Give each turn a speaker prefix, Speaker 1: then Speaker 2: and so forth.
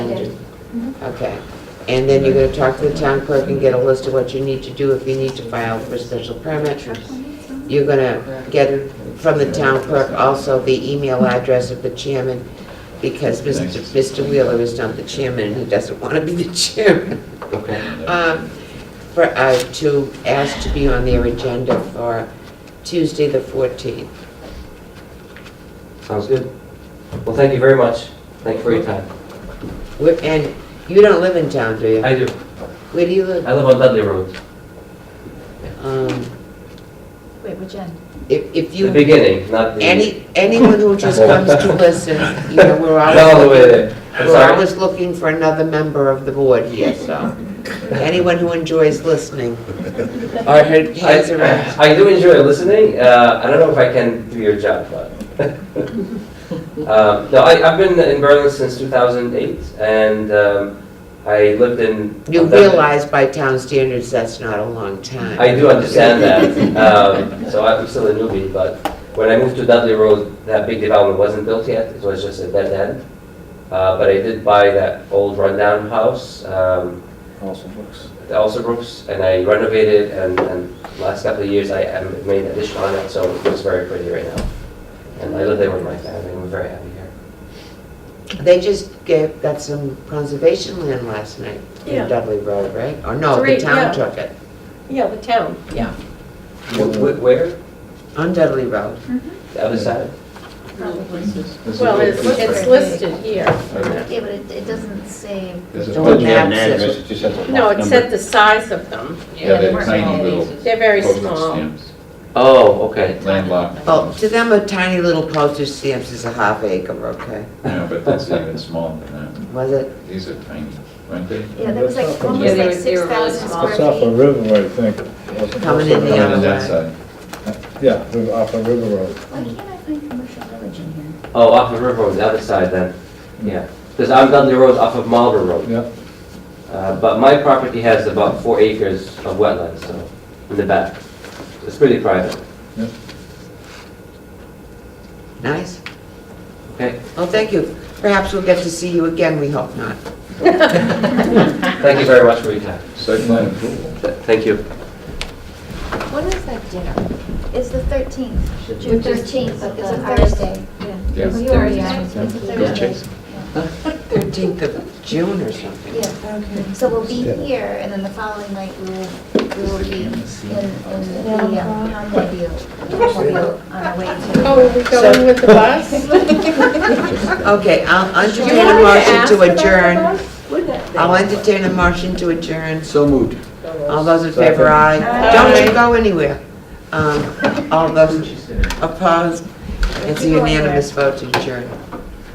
Speaker 1: Okay. And then you're gonna talk to the town clerk and get a list of what you need to do if you need to file for special permit. You're gonna get from the town clerk also the email address of the chairman, because Mr. Mr. Wheeler is not the chairman, and he doesn't wanna be the chairman.
Speaker 2: Okay.
Speaker 1: Um, For, uh, to ask to be on their agenda for Tuesday, the 14th.
Speaker 2: Sounds good. Well, thank you very much. Thank you for your time.
Speaker 1: Where- And you don't live in town, do you?
Speaker 2: I do.
Speaker 1: Where do you live?
Speaker 2: I live on Dudley Road.
Speaker 1: Um,
Speaker 3: Wait, which end?
Speaker 1: If, if
Speaker 2: The
Speaker 1: you,
Speaker 2: beginning, not the.
Speaker 1: any, anyone who just comes to listen, you know, we're
Speaker 2: All the way
Speaker 1: always,
Speaker 2: there. I'm
Speaker 1: we're
Speaker 2: sorry.
Speaker 1: always looking for another member of the board here, so. Anyone who enjoys listening.
Speaker 2: I heard.
Speaker 1: hands around.
Speaker 2: I do enjoy listening. Uh, I don't know if I can do your job, but. Um, No, I, I've been in Berlin since 2008 and um, I lived in.
Speaker 1: You realize by town standards, that's not a long time.
Speaker 2: I do understand that. Um, So I'm still a newbie, but when I moved to Dudley Road, that big development wasn't built yet. It was just a dead end. Uh, But I did buy that old rundown house. um,
Speaker 4: Awesome books.
Speaker 2: the Elsa Brooks, and I renovated, and, and last couple of years I um, made addition on it, so it looks very pretty right now. And I live there with my family, and we're very happy here.
Speaker 1: They just gave, got some conservation land last night
Speaker 5: Yeah.
Speaker 1: in Dudley Road, right? Or no, the
Speaker 5: Three, yeah.
Speaker 1: town took it,
Speaker 5: Yeah, the town, yeah.
Speaker 2: Wh- wh- Where?
Speaker 1: on Dudley Road.
Speaker 2: The other side?
Speaker 5: Well, it's it's listed here.
Speaker 3: Yeah, but it, it doesn't say,
Speaker 4: There's a
Speaker 1: Don't
Speaker 4: budget and
Speaker 1: maps it.
Speaker 4: address, it just has a lot
Speaker 5: No, it said
Speaker 4: number.
Speaker 5: the size of them.
Speaker 4: Yeah,
Speaker 3: they
Speaker 4: they're
Speaker 3: weren't
Speaker 4: tiny
Speaker 3: all
Speaker 4: little
Speaker 5: They're very
Speaker 4: postage
Speaker 5: small.
Speaker 4: stamps,
Speaker 2: Oh, okay.
Speaker 4: landlocked.
Speaker 1: Oh, to them, a tiny little postage stamps is a half acre, okay?
Speaker 4: No, but that's even smaller than
Speaker 1: Was it?
Speaker 4: that. These are tiny, aren't they?
Speaker 3: yeah, there was like, almost
Speaker 6: Yeah,
Speaker 5: they
Speaker 3: like
Speaker 5: were- they were
Speaker 3: six
Speaker 5: really
Speaker 3: thousand
Speaker 5: small.
Speaker 3: square
Speaker 6: It's off of
Speaker 3: feet.
Speaker 6: River Road, I think.
Speaker 1: Coming in the
Speaker 4: Coming
Speaker 1: other
Speaker 4: in that
Speaker 1: way.
Speaker 4: side.
Speaker 6: Yeah, we're off of River Road.
Speaker 3: Why can't I find commercial village in here?
Speaker 2: Oh, off the river on the other side then, yeah. Because I'm Dudley Road off of Marlborough Road.
Speaker 6: Yeah,
Speaker 2: Uh, But my property has about four acres of wetlands, so, in the back. It's pretty private,
Speaker 1: Nice.
Speaker 2: okay?
Speaker 1: Well, thank you. Perhaps we'll get to see you again, we hope not.
Speaker 2: Thank you very much for your time.
Speaker 4: Site plan approval.
Speaker 2: Th- Thank you.
Speaker 3: When is that dinner? It's the thirteenth, June
Speaker 7: Which is-
Speaker 3: thirteenth, but it's a
Speaker 7: uh,
Speaker 3: Thursday.
Speaker 4: Yeah.
Speaker 3: Well, You already
Speaker 7: Yeah.
Speaker 3: asked, it's a
Speaker 4: Yeah.
Speaker 3: Thursday.
Speaker 4: Chase.
Speaker 1: 13th of June or something.
Speaker 3: Yeah, so we'll be here, and then the following night, we will, we will be in, in the um, Palm View. On our way to.
Speaker 5: Oh, are we
Speaker 1: So-
Speaker 5: going with the bus?
Speaker 1: Okay, I'll
Speaker 5: Do you
Speaker 1: entertain a
Speaker 5: want me
Speaker 1: motion
Speaker 5: ask
Speaker 1: to
Speaker 5: about the
Speaker 1: adjourn.
Speaker 5: bus?
Speaker 1: I'll entertain a motion to adjourn.
Speaker 4: So moved.
Speaker 1: All those in favor, aye.
Speaker 5: Aye.
Speaker 1: Don't you go anywhere. Um, All those opposed, it's a unanimous vote to adjourn.